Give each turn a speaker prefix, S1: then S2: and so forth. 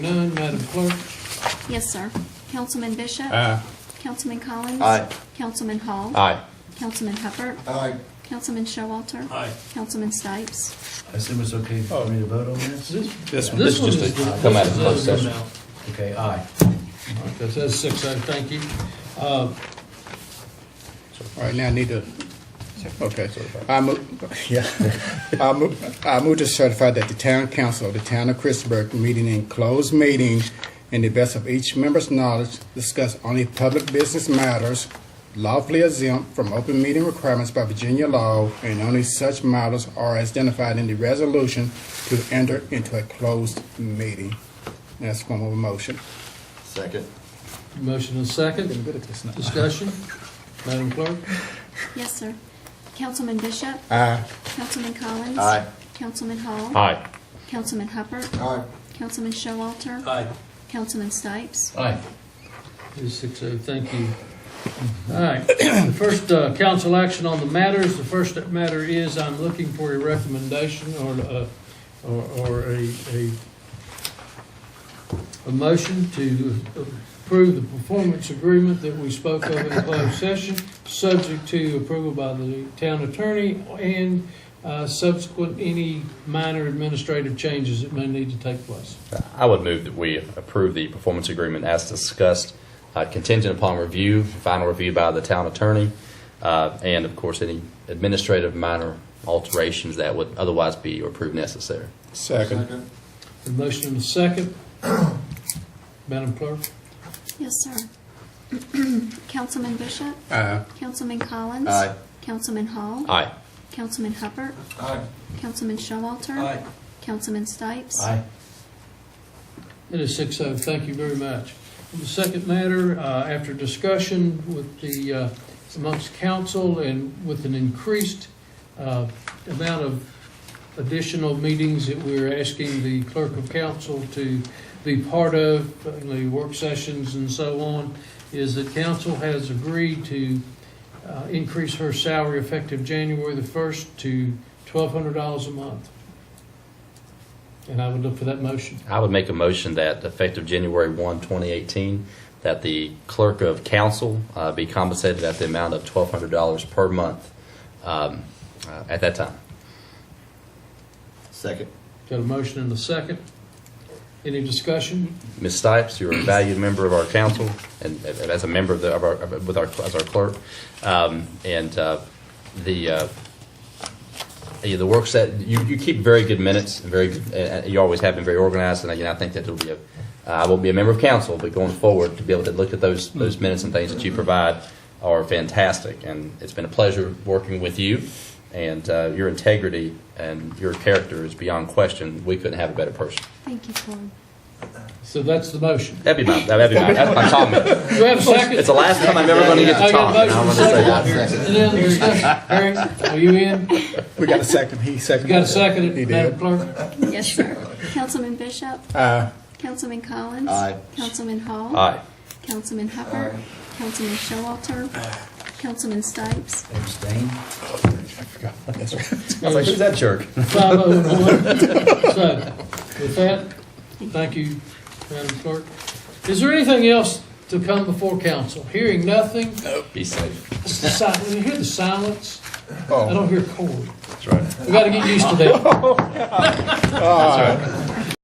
S1: Madam Clerk?
S2: Yes, sir. Councilman Bishop?
S3: Aye.
S2: Councilman Collins?
S4: Aye.
S2: Councilman Hall?
S3: Aye.
S2: Councilman Hubbard?
S4: Aye.
S2: Councilman Showalter?
S1: Aye.
S2: Councilman Stipes?
S5: I assume it's okay for me to vote on this?
S1: This one.
S3: This is just to come out of closed
S1: This is-
S3: session.
S5: Okay, aye.
S1: All right, That says six, I thank you. Uh, All right, now I need to, okay. I move, yeah, I move, I move to certify that the town council of the town of Christiansburg meeting in closed meeting in the best of each member's knowledge, discuss only public business matters lawfully exempt from open meeting requirements by Virginia law, and only such matters are as identified in the resolution to enter into a closed meeting. That's one of a motion.
S4: Second.
S6: Motion and second, discussion. Madam Clerk?
S2: Yes, sir. Councilman Bishop?
S1: Aye.
S2: Councilman Collins?
S4: Aye.
S2: Councilman Hall?
S3: Aye.
S2: Councilman Hubbard?
S4: Aye.
S2: Councilman Showalter?
S1: Aye.
S2: Councilman Stipes?
S6: Aye. It is six oh, thank you. All right, the first uh, council action on the matters, the first matter is I'm looking for a recommendation or, uh, or or a, a, a motion to approve the performance agreement that we spoke of in closed session, subject to approval by the town attorney and uh, subsequent any minor administrative changes that may need to take place.
S3: I would move that we approve the performance agreement as discussed, uh, contingent upon review, final review by the town attorney, uh, and of course, any administrative minor alterations that would otherwise be or prove necessary.
S1: Second.
S6: A motion and a second. Madam Clerk?
S2: Yes, sir. Councilman Bishop?
S1: Aye.
S2: Councilman Collins?
S4: Aye.
S2: Councilman Hall?
S3: Aye.
S2: Councilman Hubbard?
S4: Aye.
S2: Councilman Showalter? Councilman Stipes?
S5: Aye.
S6: It is six oh, thank you very much. The second matter, uh, after discussion with the, uh, amongst council and with an increased uh, amount of additional meetings that we're asking the clerk of council to be part of, the work sessions and so on, is that council has agreed to uh, increase her salary effective January the first to twelve hundred dollars a month. And I would look for that motion.
S3: I would make a motion that effective January 1, 2018, that the clerk of council uh, be compensated at the amount of $1,200 per month um, uh, at that time.
S4: Second.
S6: Got a motion and a second. Any discussion?
S3: Ms. Stipes, you're a valued member of our council and and as a member of the, of our, of- with our, as our clerk. Um, And uh, the, uh, yeah, the work set, you, you keep very good minutes, and very, good- uh, uh, you always have been very organized. And again, I think that it'll be, a- uh, I won't be a member of council, but going forward, to be able to look at those, those minutes and things that you provide are fantastic. And it's been a pleasure working with you and uh, your integrity and your character is beyond question. We couldn't have a better person.
S2: Thank you, Corey.
S6: So that's the motion.
S3: That'd be my, that'd be my, that's my comment.
S6: Do we have a second?
S3: It's the last time I'm ever going to get
S6: I
S3: to
S6: got
S3: talk.
S6: a
S3: and I
S6: motion
S3: wanna
S6: and
S3: say that.
S6: second. Any other discussion? Harry, are you in? You
S1: We got a second, he seconded.
S6: got a second,
S1: He
S6: Madam
S1: did.
S6: Clerk?
S2: Yes, sir. Councilman Bishop?
S1: Aye.
S2: Councilman Collins?
S4: Aye.
S2: Councilman Hall?
S3: Aye.
S2: Councilman Hubbard? Councilman Showalter? Councilman Stipes?
S5: Abstain?
S3: I was like, who's that jerk?
S6: Five oh and one. So, with that, thank you, Madam Clerk. Is there anything else to come before council? Hearing nothing,
S3: Be safe.
S6: it's the si- you hear the silence? I
S1: Oh,
S6: don't hear Corey.
S3: That's right.
S6: We gotta get used to that.
S3: That's right.